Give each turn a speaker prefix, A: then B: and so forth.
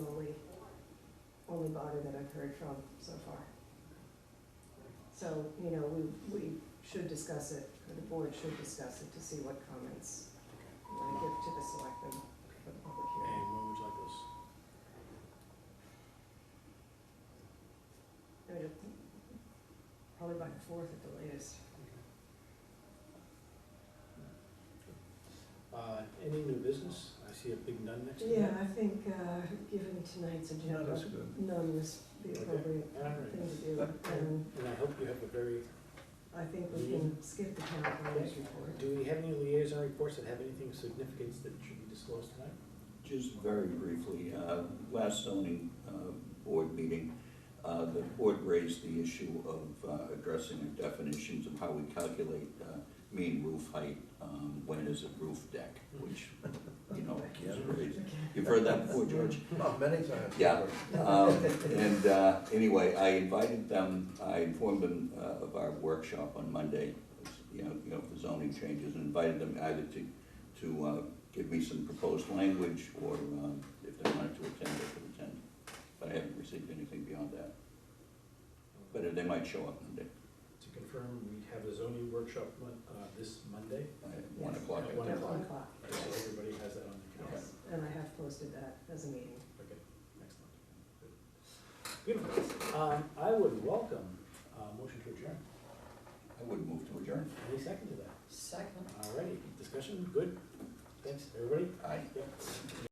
A: building body that I've heard from so far. So, you know, we, we should discuss it, or the board should discuss it to see what comments we want to give to the selectmen for the public hearing.
B: And when would you like this?
A: I mean, Probably by the fourth at the latest.
B: Uh, any new business? I see a big none next to it.
A: Yeah, I think, uh, given tonight's
C: No,
A: agenda,
C: that's good.
A: none was the
B: Okay.
A: appropriate
B: All right.
A: thing to do. And
B: And I hope you have a very,
A: I think we can skip the town planners report.
B: do we have any liaison reports that have anything of significance that should be disclosed tonight?
D: Just very briefly, uh, last zoning uh, board meeting, uh, the board raised the issue of uh, addressing the definitions of how we calculate uh, mean roof height, um, when is a roof deck, which, you know, is raised. You've heard that before, George?
C: Oh, many times.
D: Yeah. Um, And uh, anyway, I invited them, I informed them uh, of our workshop on Monday, you know, you know, for zoning changes, and invited them either to, to uh, give me some proposed language, or um, if they wanted to attend, they could attend. But I haven't received anything beyond that, but uh, they might show up Monday,
B: To confirm, we have the zoning workshop mon- uh, this Monday,
D: at one
A: Yes.
D: o'clock.
B: At
D: I
B: one
A: At
D: think.
A: one
B: o'clock.
A: o'clock,
B: so everybody has that on the calendar.
A: yes. And I have posted that as a meeting.
B: Okay, excellent. Good. Beautiful. Um, I would welcome, uh, motion to adjourn.
D: I would move to adjourn.
B: Any second to that?
A: Second.
B: All righty, discussion, good. Thanks, everybody.
D: Aye.
B: Yep.